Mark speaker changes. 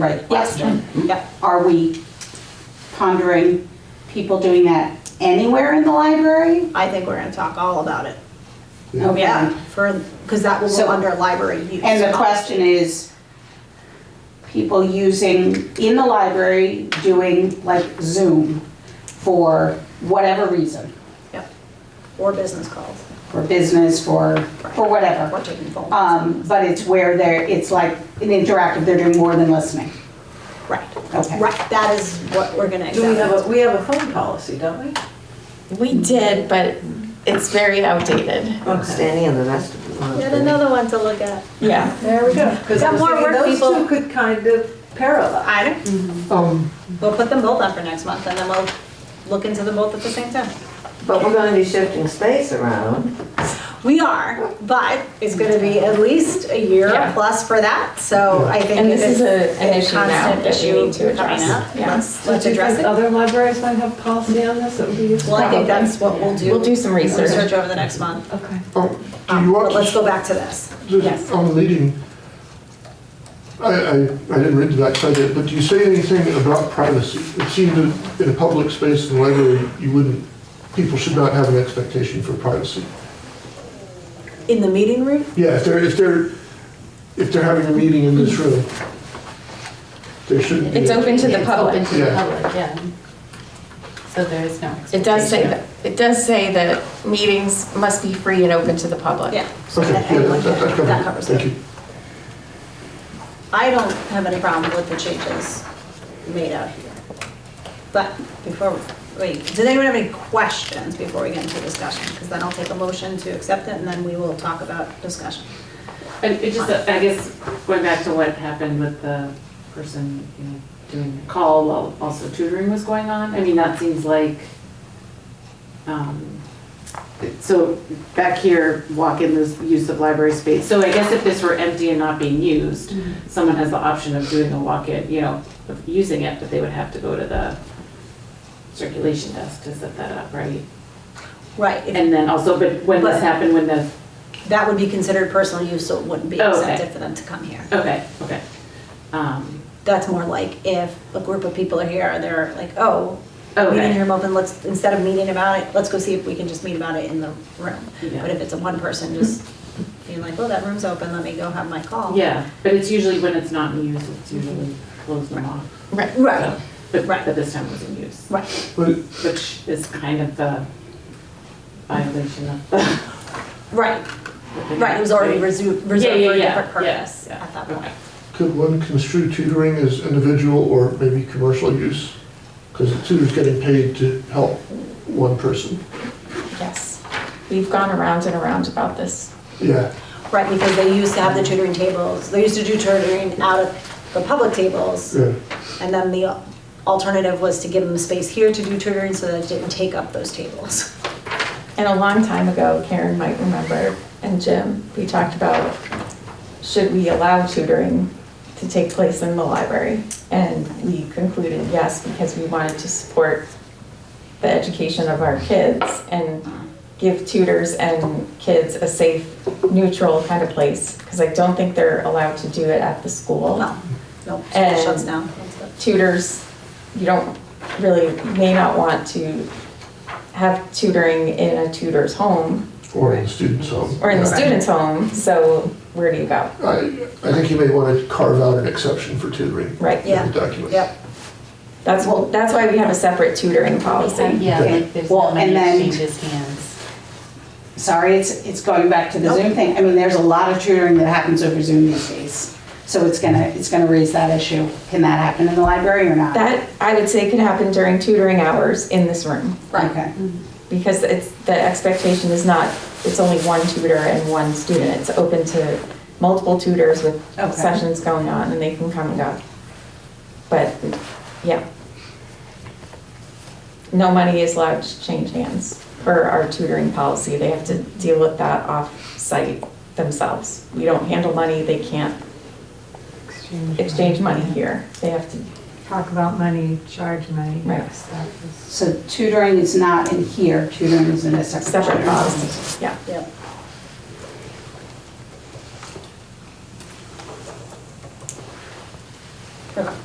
Speaker 1: Right,
Speaker 2: Yes.
Speaker 1: question. Are we pondering people doing that anywhere in the library?
Speaker 2: I think we're gonna talk all about it.
Speaker 1: Okay.
Speaker 2: Yeah, for, because that will
Speaker 1: Oh, So-
Speaker 2: go under library use.
Speaker 1: And the question is, people using, in the library, doing like Zoom for whatever reason,
Speaker 2: Yep. Or business calls,
Speaker 1: for business, for, for
Speaker 2: or
Speaker 1: whatever.
Speaker 2: taking phone.
Speaker 1: Um, but it's where they're, it's like an interactive, they're doing more than listening.
Speaker 2: Right,
Speaker 1: Okay.
Speaker 2: right, that is what we're gonna
Speaker 3: Do we have a,
Speaker 2: examine.
Speaker 3: we have a phone policy, don't we?
Speaker 4: We did, but it's very outdated.
Speaker 5: Standing in the rest of the.
Speaker 2: Yet another one to look at.
Speaker 4: Yeah.
Speaker 2: There we go.
Speaker 3: Because
Speaker 2: Got more work, people.
Speaker 3: Those two could kind of parallel.
Speaker 2: I don't, Mm-hmm. we'll put them both up for next month, and then we'll look into them both at the same time.
Speaker 5: But we're gonna be shifting space around.
Speaker 2: We are, but it's gonna be at least a year
Speaker 4: Yeah.
Speaker 2: plus for that, so I think
Speaker 4: And
Speaker 2: it
Speaker 4: this is a- an issue now
Speaker 2: constant
Speaker 4: that we
Speaker 2: issue
Speaker 4: need to
Speaker 2: coming
Speaker 4: address.
Speaker 2: up.
Speaker 4: Yeah.
Speaker 2: Let's,
Speaker 6: Do you
Speaker 2: let's address
Speaker 6: think
Speaker 2: it.
Speaker 6: Other libraries might have policy on this that would be useful.
Speaker 2: Well, I think that's what we'll do.
Speaker 4: We'll do some research.
Speaker 2: Research over the next month.
Speaker 6: Okay.
Speaker 7: Do you
Speaker 2: Um, But
Speaker 7: want
Speaker 2: let's
Speaker 7: to,
Speaker 2: go back to this.
Speaker 7: just on the leading, I, I, I didn't read the backside yet, but do you say anything about privacy? It seemed that in a public space in the library, you wouldn't, people should not have an expectation for privacy.
Speaker 2: In the meeting room?
Speaker 7: Yeah, if they're, if they're, if they're having a meeting in this room, there shouldn't be.
Speaker 4: It's open to the
Speaker 6: It's
Speaker 4: public.
Speaker 6: open to the
Speaker 7: Yeah.
Speaker 6: public, yeah. So there is no
Speaker 4: It does say
Speaker 6: expectation.
Speaker 4: that, it does say that meetings must be free and open to the public.
Speaker 2: Yeah. so
Speaker 7: Okay,
Speaker 2: that
Speaker 7: yeah,
Speaker 2: anyone
Speaker 7: that, that-
Speaker 2: can-
Speaker 7: that
Speaker 2: that
Speaker 7: covers
Speaker 2: covers
Speaker 7: it. Thank
Speaker 2: it.
Speaker 7: you.
Speaker 2: I don't have any problem with the changes made out here. But before, wait, does anyone have any questions before we get into discussion? Because then I'll take a motion to accept it, and then we will talk about discussion.
Speaker 8: And it just, I guess, going back to what happened with the person, you know, doing the call while also tutoring was going on, I mean, that seems like, um, so back here, walk-in this use of library space, so I guess if this were empty and not being used,
Speaker 6: Mm-hmm.
Speaker 8: someone has the option of doing a walk-in, you know, of using it, but they would have to go to the circulation desk to set that up, right?
Speaker 2: Right, if-
Speaker 8: And then also, but when
Speaker 2: But-
Speaker 8: this happened, when the
Speaker 2: that would be considered personal use, so it wouldn't be
Speaker 8: Oh, okay.
Speaker 2: accepted for them to come here.
Speaker 8: Okay, okay. Um,
Speaker 2: That's more like if a group of people are here and they're like, oh, meeting
Speaker 8: okay,
Speaker 2: room open, let's, instead of meeting about it, let's go see if we can just meet about it in the room.
Speaker 8: Yeah.
Speaker 2: But if it's a one person, just being like, oh, that room's open, let me go have my call.
Speaker 8: yeah, but it's usually when it's not in use, it's usually closed and locked.
Speaker 4: Right.
Speaker 2: Right,
Speaker 8: So, But,
Speaker 2: Right.
Speaker 8: but this time it was in use,
Speaker 2: right,
Speaker 7: But
Speaker 8: which is kind of the violation of the.
Speaker 2: right, right, it was already resu- reserved for a different purpose
Speaker 8: yeah,
Speaker 2: at that
Speaker 8: okay.
Speaker 2: point.
Speaker 7: could one construe tutoring as individual or maybe commercial use? Because the tutor's getting paid to help one person.
Speaker 4: Yes. We've gone around and around about this.
Speaker 7: Yeah,
Speaker 2: Right, because they used to have the tutoring tables, they used to do tutoring out of the public tables.
Speaker 7: yeah.
Speaker 2: And then the alternative was to give them space here to do tutoring so that it didn't take up those tables.
Speaker 4: And a long time ago, Karen might remember, and Jim, we talked about, should we allow tutoring to take place in the library? And we concluded yes, because we wanted to support the education of our kids and give tutors and kids a safe, neutral kind of place, because I don't think they're allowed to do it at the
Speaker 8: Oh.
Speaker 4: school
Speaker 2: No, no,
Speaker 4: And-
Speaker 2: it shuts down.
Speaker 4: tutors, you don't really, may not want to have tutoring in a tutor's home
Speaker 7: Or in the student's home.
Speaker 4: or in the
Speaker 7: Yeah.
Speaker 4: student's home, so where do you go?
Speaker 7: I, I think you may want to carve out an exception for tutoring
Speaker 4: Right,
Speaker 7: in
Speaker 2: Yeah.
Speaker 7: the document.
Speaker 2: Yep,
Speaker 4: that's, well, that's why we have a separate tutoring policy.
Speaker 6: Yeah,
Speaker 7: Okay.
Speaker 6: like there's
Speaker 1: Well,
Speaker 6: not many
Speaker 1: and then-
Speaker 6: exchanges hands.
Speaker 1: Sorry, it's, it's going back to the Zoom thing. I mean, there's a lot of tutoring that happens over Zoom these days. So it's gonna, it's gonna raise that issue. Can that happen in the library or not?
Speaker 4: That, I would say, could happen during tutoring hours in this room,
Speaker 2: right.
Speaker 1: Okay,
Speaker 4: because it's, the expectation is not, it's only one tutor and one student. It's open to multiple tutors with
Speaker 1: Okay.
Speaker 4: sessions going on, and they can come and go. But, yeah. No money is allowed to change hands per our tutoring policy. They have to deal with that off-site themselves. We don't handle money, they can't exchange money here. They have to,
Speaker 9: talk about money, charge money,
Speaker 4: Right.
Speaker 9: stuff is
Speaker 1: so tutoring is not in here, tutoring is in a separate.
Speaker 4: separate
Speaker 1: chapter.
Speaker 4: policy, yeah.
Speaker 2: Yep. Okay.